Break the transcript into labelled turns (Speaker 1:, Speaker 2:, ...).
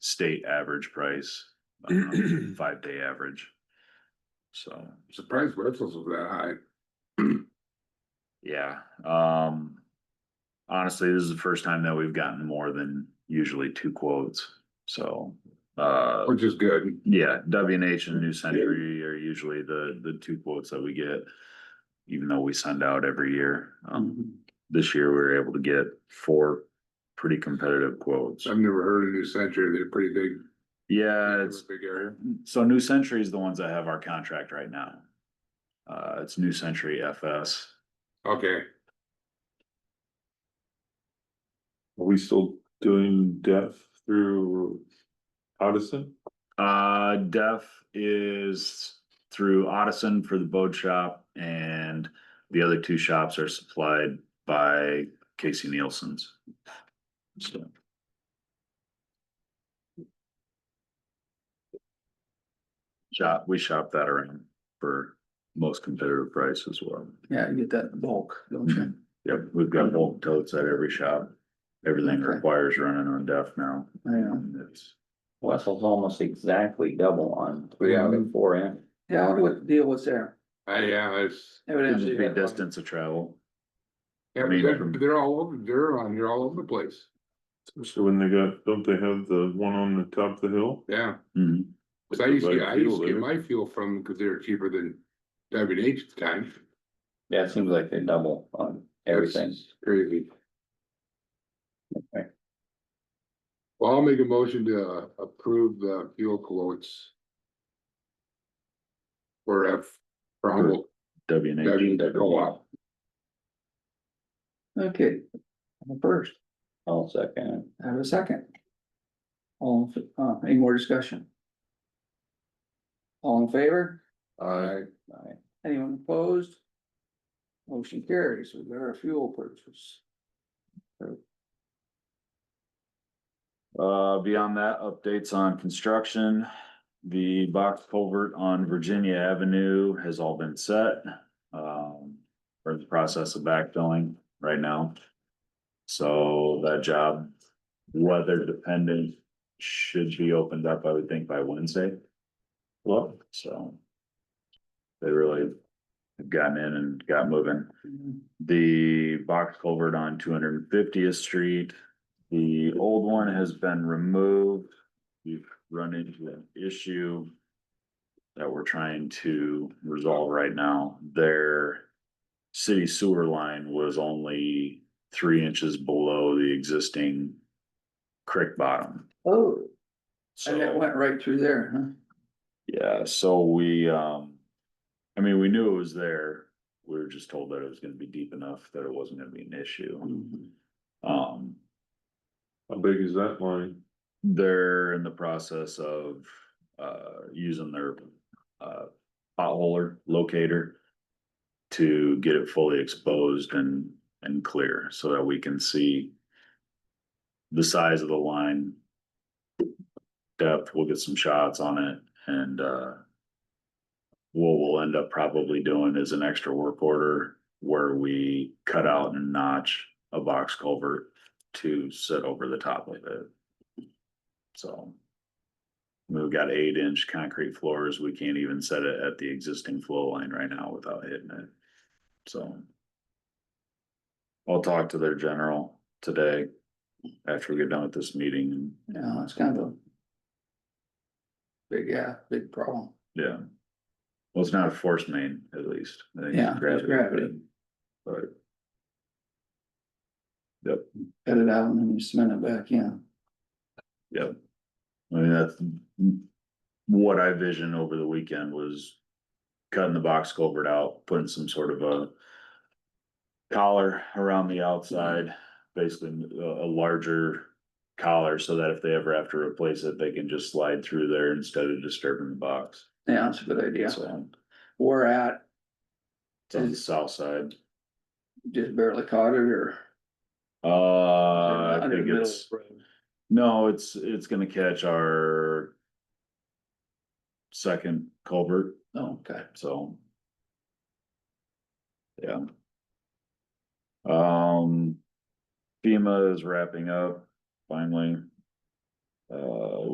Speaker 1: state average price, um, five day average. So,
Speaker 2: Surprised Wetzel's was that high.
Speaker 1: yeah, um. Honestly, this is the first time that we've gotten more than usually two quotes, so, uh.
Speaker 2: Which is good.
Speaker 1: Yeah, W and H and New Century are usually the, the two quotes that we get. Even though we send out every year, um, this year we were able to get four pretty competitive quotes.
Speaker 2: I've never heard of New Century. They're pretty big.
Speaker 1: Yeah,
Speaker 2: they're a
Speaker 1: Uh, it's,
Speaker 2: Big area.
Speaker 1: so New Century is the ones that have our contract right now. Uh, it's New Century FS.
Speaker 2: Okay,
Speaker 3: Are we still doing deaf through Odison?
Speaker 1: Uh, Def is through Odison for the boat shop and the other two shops are supplied by Casey Nielsen's. So. Shop, we shop that around for most competitive price as well.
Speaker 4: Yeah, you get that in bulk, don't
Speaker 5: Mm-hmm.
Speaker 4: you?
Speaker 1: Yep, we've got bulk totes at every shop. Everything
Speaker 4: Okay.
Speaker 1: requires running on Def now.
Speaker 4: Yeah.
Speaker 1: And it's-
Speaker 5: Wessel's almost exactly double on.
Speaker 2: Yeah.
Speaker 5: on Four in.
Speaker 4: Mm-hmm. Yeah, I wonder what the deal was there.
Speaker 2: I, Uh, yeah, it's,
Speaker 1: It'd
Speaker 4: Evidently,
Speaker 1: just
Speaker 4: you
Speaker 1: be
Speaker 4: had one.
Speaker 1: distance of travel.
Speaker 2: yeah, but they're, they're all over, they're on, here all over the place.
Speaker 3: Especially when they got, don't they have the one on the top of the hill?
Speaker 2: Yeah,
Speaker 1: Mhm.
Speaker 4: Mm-hmm.
Speaker 2: cause I used to,
Speaker 3: Provide
Speaker 2: I used to
Speaker 3: fuel,
Speaker 2: get
Speaker 3: eh?
Speaker 2: my fuel from, them cause they were cheaper than W and H at the time.
Speaker 5: Yeah, it seems like they double on everything.
Speaker 2: That's Crazy.
Speaker 5: Okay.
Speaker 2: Well, I'll make a motion to uh, approve the fuel quotes. For F, for Humboldt,
Speaker 1: W
Speaker 2: I mean,
Speaker 1: and H.
Speaker 2: that co-op.
Speaker 4: Okay, I'm first,
Speaker 5: I'll second.
Speaker 4: I have a second. All, in f- uh, any more discussion? All in favor?
Speaker 2: Alright,
Speaker 5: it. All right.
Speaker 4: Anyone opposed? Motion carries, we got our fuel purchase.
Speaker 1: Uh, beyond that, updates on construction. The box culvert on Virginia Avenue has all been set. Um, we're in the process of backfilling right now. So that job, weather dependent, should be opened up, I would think, by Wednesday. Well, so. They really have gotten in and got moving.
Speaker 5: Mm-hmm.
Speaker 1: The box culvert on two hundred and fiftieth street, the old one has been removed. We've run into an issue. That we're trying to resolve right now. Their city sewer line was only three inches below the existing creek bottom.
Speaker 4: Oh,
Speaker 1: So.
Speaker 4: and it went right through there, huh?
Speaker 1: Yeah, so we, um, I mean, we knew it was there. We were just told that it was gonna be deep enough that it wasn't gonna be an issue.
Speaker 4: Mm-hmm.
Speaker 1: Um,
Speaker 3: How big is that line?
Speaker 1: they're in the process of, uh, using their, uh, potholer locator to get it fully exposed and, and clear so that we can see the size of the line. Depth, we'll get some shots on it and, uh, what we'll end up probably doing is an extra work order where we cut out and notch a box culvert to sit over the top of it. So. We've got eight inch concrete floors. We can't even set it at the existing flow line right now without hitting it. So. I'll talk to their general today after we get done with this meeting and
Speaker 4: Yeah, it's kind of a. Big, yeah, big problem.
Speaker 1: yeah. Well, it's not a force main at least. I think it's
Speaker 4: Yeah, it's gravity.
Speaker 1: But
Speaker 4: Cut it out and then you cement it back in.
Speaker 1: Yep. I mean, that's what I visioned over the weekend was cutting the box culvert out, putting some sort of a collar around the outside, basically a, a larger collar so that if they ever have to replace it, they can just slide through there instead of disturbing the box.
Speaker 4: Yeah, that's a good idea.
Speaker 1: So
Speaker 4: We're at,
Speaker 1: it's on the south side.
Speaker 4: just barely caught it or.
Speaker 1: Uh, I
Speaker 4: Under the
Speaker 1: think
Speaker 4: middle
Speaker 1: it's,
Speaker 4: of the road.
Speaker 1: no, it's, it's gonna catch our second culvert.
Speaker 4: Oh, okay.
Speaker 1: so. Yeah. Um, FEMA is wrapping up finally. Uh,